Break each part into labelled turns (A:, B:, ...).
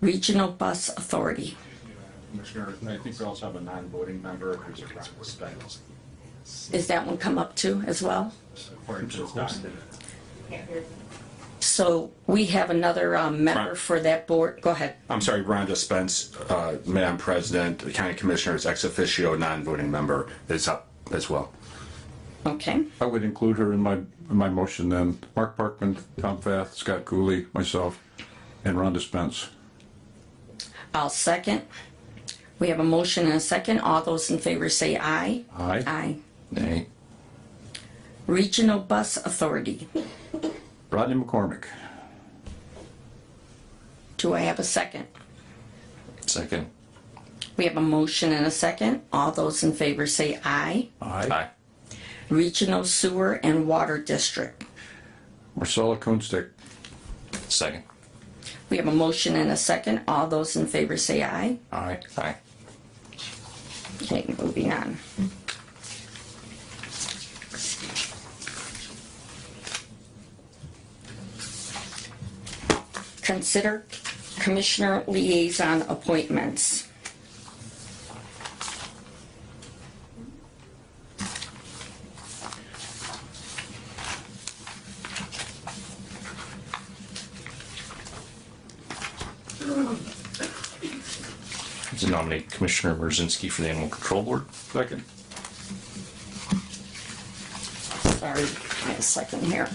A: Regional Bus Authority.
B: Commissioner, I think we also have a non-voting member who's a Ron Stiles,
A: Is that one come up too as well?
B: according to this document.
A: So we have another um, member
B: Right.
A: for that board. Go ahead.
B: I'm sorry, Rhonda Spence, uh, Madam President, the County Commissioner is ex officio non-voting member, is up as well.
A: Okay.
C: I would include her in my, in my motion then. Mark Parkman, Tom Fath, Scott Cooley, myself, and Rhonda Spence.
A: I'll second. We have a motion and a second. All those in favor say aye.
C: Aye.
A: Aye.
C: Nay.
A: Regional Bus Authority.
C: Rodney McCormick.
A: Do I have a second?
D: Second.
A: We have a motion and a second. All those in favor say aye.
C: Aye.
A: Regional Sewer and Water District.
C: Marcella Kunstick.
D: Second.
A: We have a motion and a second. All those in favor say aye.
C: Aye.
D: Aye.
A: Okay, moving on. Consider Commissioner Liaison Appointments.
D: To nominate Commissioner Merzinski for the Animal Control Board.
C: Second.
A: Sorry, give me a second here.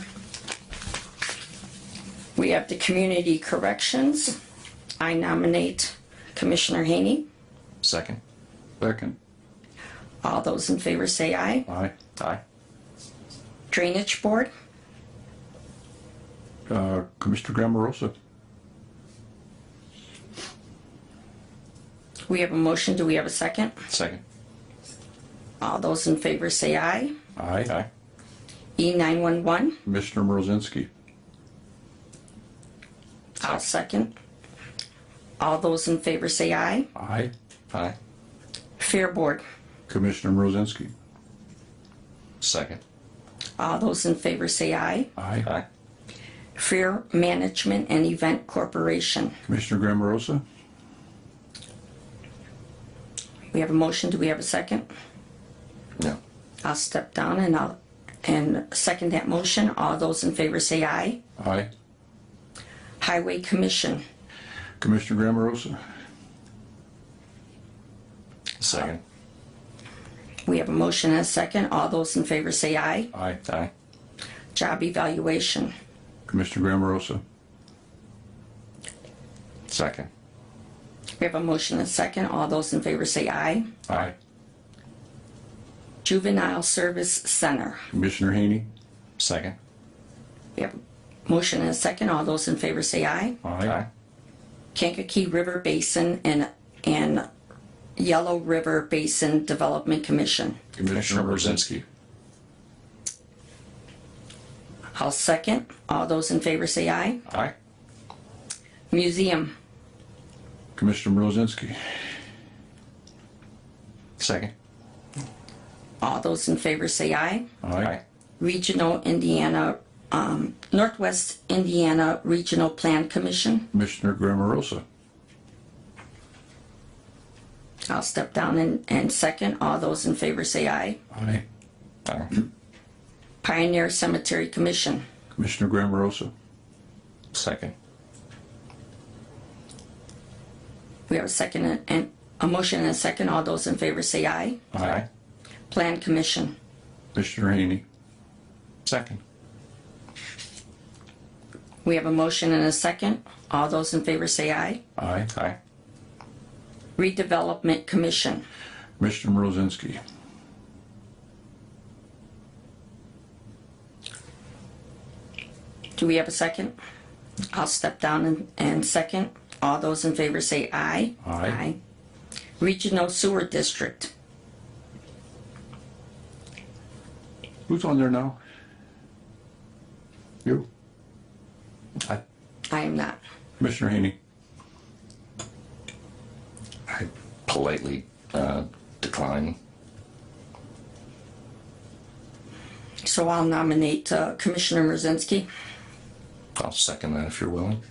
A: We have the Community Corrections. I nominate Commissioner Haney.
D: Second.
C: Second.
A: All those in favor say aye.
C: Aye.
D: Aye.
A: Drainage Board,
C: Uh, Commissioner Grammarosa.
A: we have a motion. Do we have a second?
D: Second.
A: All those in favor say aye. E
C: Aye.
A: E911,
C: Commissioner Mrozinski.
A: I'll second. All those in favor say aye.
C: Aye.
D: Aye.
A: Fair Board,
C: Commissioner Mrozinski.
D: Second.
A: all those in favor say aye.
C: Aye.
D: Aye.
A: Fair Management and Event Corporation,
C: Commissioner Grammarosa.
A: we have a motion. Do we have a second?
D: No.
A: I'll step down and I'll, and second that motion. All those in favor say aye.
C: Aye.
A: Highway Commission,
C: Commissioner Grammarosa.
D: Second.
A: we have a motion and a second. All those in favor say aye.
C: Aye.
D: Aye.
A: Job Evaluation,
C: Commissioner Grammarosa.
D: Second.
A: we have a motion and a second. All those in favor say aye.
C: Aye.
A: Juvenile Service Center.
C: Commissioner Haney.
D: Second.
A: We have a motion and a second. All those in favor say aye.
D: Aye.
A: Kankakee River Basin and, and Yellow River Basin Development Commission.
D: Commissioner Merzinski.
A: I'll second. All those in favor say aye.
D: Aye.
A: Museum,
C: Commissioner Mrozinski.
D: Second.
A: all those in favor say aye.
D: Aye.
A: Regional Indiana, um, Northwest Indiana Regional Plan Commission.
C: Commissioner Grammarosa.
A: I'll step down and, and second. All those in favor say aye.
C: Aye.
D: Aye.
A: Pioneer Cemetery Commission.
C: Commissioner Grammarosa.
D: Second.
A: We have a second and- and, a motion and a second. All those in favor say aye.
D: Aye.
A: Plan Commission.
C: Commissioner Haney.
D: Second.
A: We have a motion and a second. All those in favor say aye.
C: Aye.
D: Aye.
A: Redevelopment Commission.
C: Commissioner Mrozinski.
A: Do we have a second? I'll step down and, and second. All those in favor say aye.
C: Aye.
A: Regional Sewer District.
C: Who's on there now? You.
D: Aye.
A: I am not.
C: Commissioner Haney.
D: I politely uh, decline.
A: So I'll nominate uh, Commissioner Mrazinski.
D: I'll second that if you're willing.